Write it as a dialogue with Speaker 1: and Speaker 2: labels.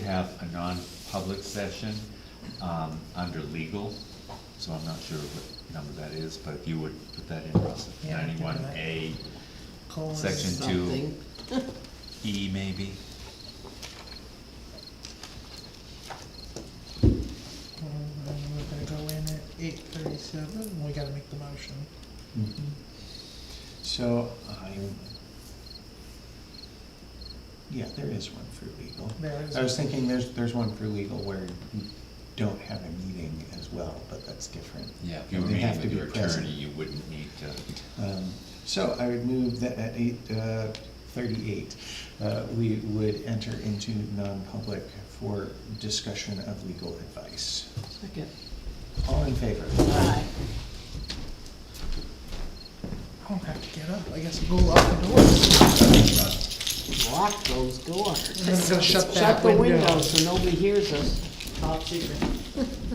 Speaker 1: have a non-public session um, under legal, so I'm not sure what number that is, but if you would put that in, Russell,
Speaker 2: Yeah, I can do
Speaker 1: ninety-one
Speaker 2: that.
Speaker 1: A,
Speaker 2: Colon.
Speaker 1: section two,
Speaker 3: something.
Speaker 1: E maybe?
Speaker 2: Um, We're gonna go in at eight thirty-seven, we gotta make the motion.
Speaker 4: Mm-hmm. So I'm, yeah, there is one for legal.
Speaker 2: There is
Speaker 4: I was
Speaker 2: one.
Speaker 4: thinking there's, there's one for legal where you don't have a meeting as well, but that's different.
Speaker 1: Yeah, if you were
Speaker 4: They have
Speaker 1: meeting
Speaker 4: to
Speaker 1: with
Speaker 4: be
Speaker 1: your
Speaker 4: present.
Speaker 1: attorney, you wouldn't need to.
Speaker 4: Um, So I would move that at eight uh, thirty-eight, uh, we would enter into non-public for discussion of legal advice.
Speaker 3: Second.
Speaker 4: All in favor?
Speaker 3: Aye.
Speaker 2: I don't have to get up, I guess we'll go out the door.
Speaker 3: Lock those doors.
Speaker 2: I'm gonna shut that
Speaker 3: Shut the
Speaker 2: window.
Speaker 3: window so nobody hears us. Top secret.